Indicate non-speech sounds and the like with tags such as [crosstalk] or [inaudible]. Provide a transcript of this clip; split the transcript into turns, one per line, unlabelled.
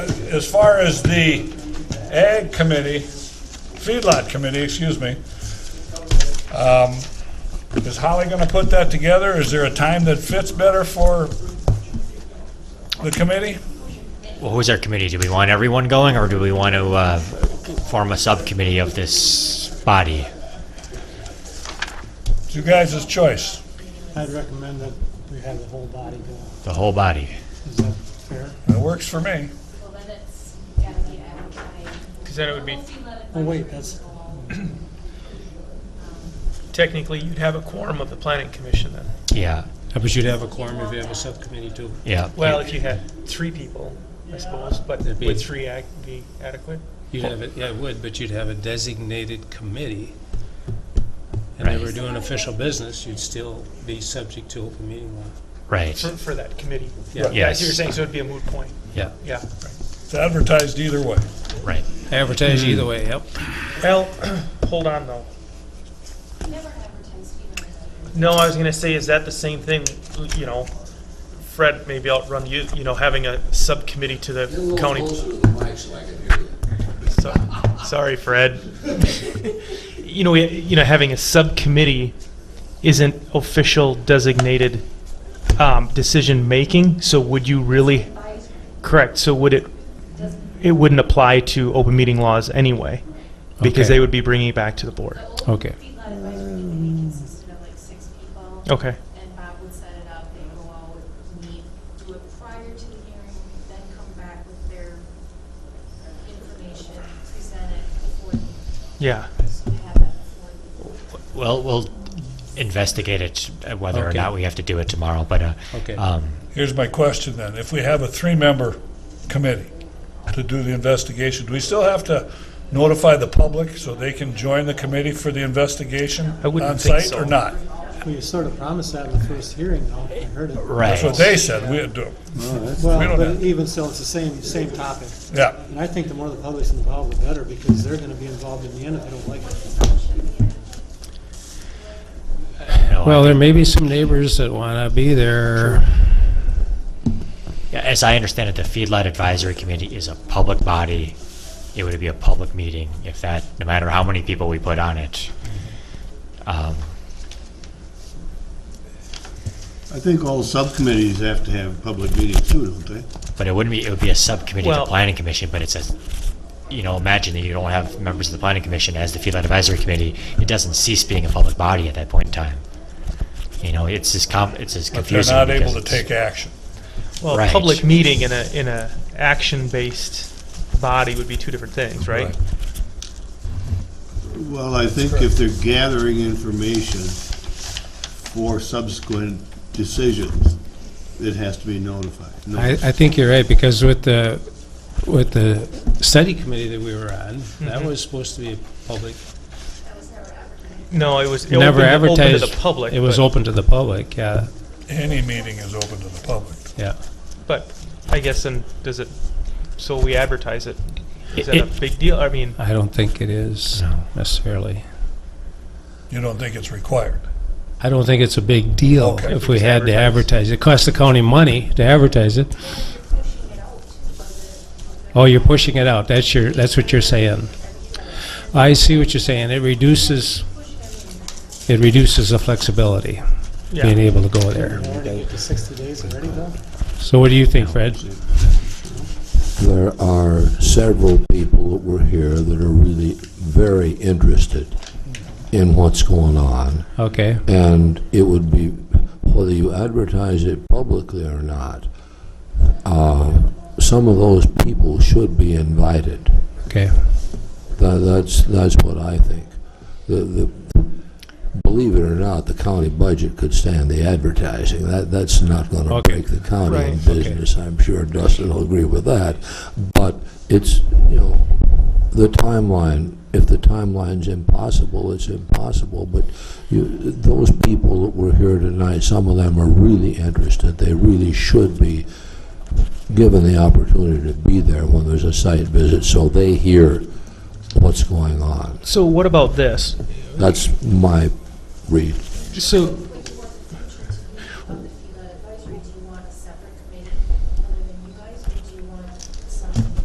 as far as the ag committee, feedlot committee, excuse me, um, is Holly going to put that together? Is there a time that fits better for the committee?
Well, who's our committee? Do we want everyone going, or do we want to uh, form a subcommittee of this body?
It's you guys' choice.
I'd recommend that we have the whole body go.
The whole body?
Is that fair?
It works for me.
Well, then it's gotta be advertised.
Because then it would be,
Oh, wait, that's,
technically, you'd have a quorum of the planning commission then.
Yeah,
But you'd have a quorum if you have a subcommittee too.
yeah.
Well, if you had three people, I suppose, but
That'd be-
would three act be adequate?
You'd have it, yeah, it would, but you'd have a designated committee. And they
Right.
were doing official business, you'd still be subject to open meeting law.
right.
For, for that committee?
Yeah.
Yeah, I see what you're
Yes.
saying, so it'd be a moot point,
Yeah,
yeah.
It's advertised either way.
right.
Advertise either way, yep.
Well, [clears throat] hold on though.
Never advertised, you know.
No, I was gonna say, is that the same thing, you know, Fred, maybe outrun you, you know, having a subcommittee to
Get a little
the county.
closer to the mic so I can hear you.
So- Sorry, Fred. You know, we- you know, having a subcommittee isn't official designated um, decision-making, so would you really, correct, so would it, it wouldn't apply to open meeting laws anyway? Because
Okay.
they would be bringing it back to the board.
Okay.
Feedlot advisory committee consisted of like six people.
Okay.
And Bob would set it up, they'd go out, meet, do it prior to the hearing, then come back with their information, present it before, the-
Yeah,
have that before.
Well, we'll investigate it, uh, whether or
Okay.
not we have to do it tomorrow, but, uh,
Okay.
um,
Here's my question then. If we have a three-member committee to do the investigation, do we still have to notify the public so they can join the committee for the investigation
I wouldn't
on
think
site or
so.
not?
we sort of promised that in the first hearing, though. I heard it.
That's what
right.
they said. We, had to- we
Well,
don't
but
have-
even still, it's the same, same topic.
yeah.
And I think the more the public's involved, the better, because they're gonna be involved in the end if they don't like it.
No,
Well, there may be some neighbors that want to be there.
Yeah, As I understand it, the feedlot advisory committee is a public body. It would be a public meeting if that, no matter how many people we put on it. Um,
I think all subcommittees have to have public meetings too, don't they?
But it wouldn't be, it would be a subcommittee of the
Well-
planning commission, but it's a, you know, imagine that you don't have members of the planning commission as the feedlot advisory committee. It doesn't cease being a public body at that point in time. You know, it's as com, it's as
But they're
confusing.
not able
because
to
it's-
take action.
well, a
Right.
public meeting in a, in a action-based body would be two different things, right?
Right.
Well, I think if they're gathering information for subsequent decisions, it has to be notified. No-
I, I think you're right, because with the, with the study committee that we were on, that was supposed to be a public,
No, it was. it
never
opened- opened
advertised.
to the public.
It was
but-
open to the public, yeah,
Any meeting is open to the public.
yeah.
But I guess then, does it, so we advertise it, is
It-
that a big deal? I mean,
I don't think it is
No.
necessarily.
You don't think it's required?
I don't think it's a big deal
Okay.
if we had to advertise. It costs the county money to advertise it. Oh, you're pushing it out. That's your, that's what you're saying. I see what you're saying. It reduces, it reduces the flexibility, being
yeah,
able to go there.
They already get to sixty days already, though.
So what do you think, Fred?
There are several people that were here that are really very interested in what's going on,
Okay,
and it would be, whether you advertise it publicly or not, uh, some of those people should be invited.
okay.
Tha- That's, that's what I think. The, the, believe it or not, the county budget could stand the advertising. That, that's not gonna
Okay.
break the county in
Right. Okay.
business. I'm sure Dustin will agree with that. But it's, you know, the timeline, if the timeline's impossible, it's impossible. But you, those people that were here tonight, some of them are really interested. They really should be given the opportunity to be there when there's a site visit, so they hear what's going on.
so what about this?
That's my read.
So,